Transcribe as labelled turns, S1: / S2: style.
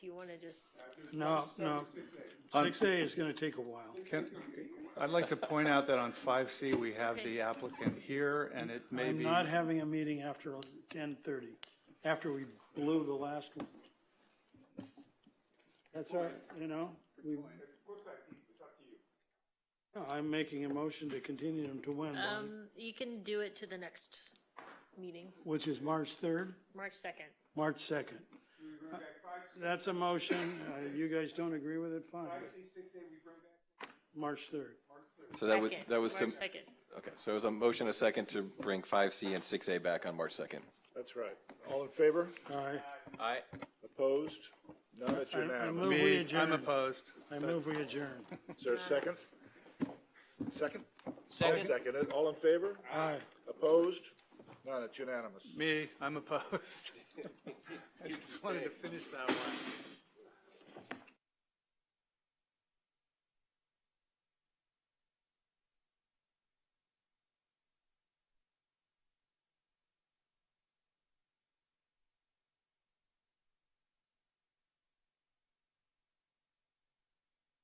S1: you wanna just,
S2: No, no. Six A is gonna take a while.
S3: I'd like to point out that on five C, we have the applicant here, and it may
S2: I'm
S3: be,
S2: not having a meeting after ten thirty, after we blew the last one. That's all, right, you know, we. No, I'm making a motion to continue them to when, Bonnie?
S1: um, you can do it to the next meeting,
S2: which is March third,
S1: March second.
S2: March second. That's a motion. Uh, you guys don't agree with it, fine. March third.
S4: So that would, that was to,
S1: March second.
S4: okay, so it was a motion, a second to bring five C and six A back on March second.
S5: That's right. All in favor?
S2: All right.
S4: Aye.
S5: Opposed? None, it's
S2: I
S5: unanimous.
S2: move we
S3: Me, I'm
S2: adjourn.
S3: opposed.
S2: I move we adjourn.
S5: Is there a second? Second? Second. Seconded. All in favor?
S2: Aye.
S5: Opposed? None, it's unanimous.
S3: Me, I'm opposed. I just wanted to finish that one.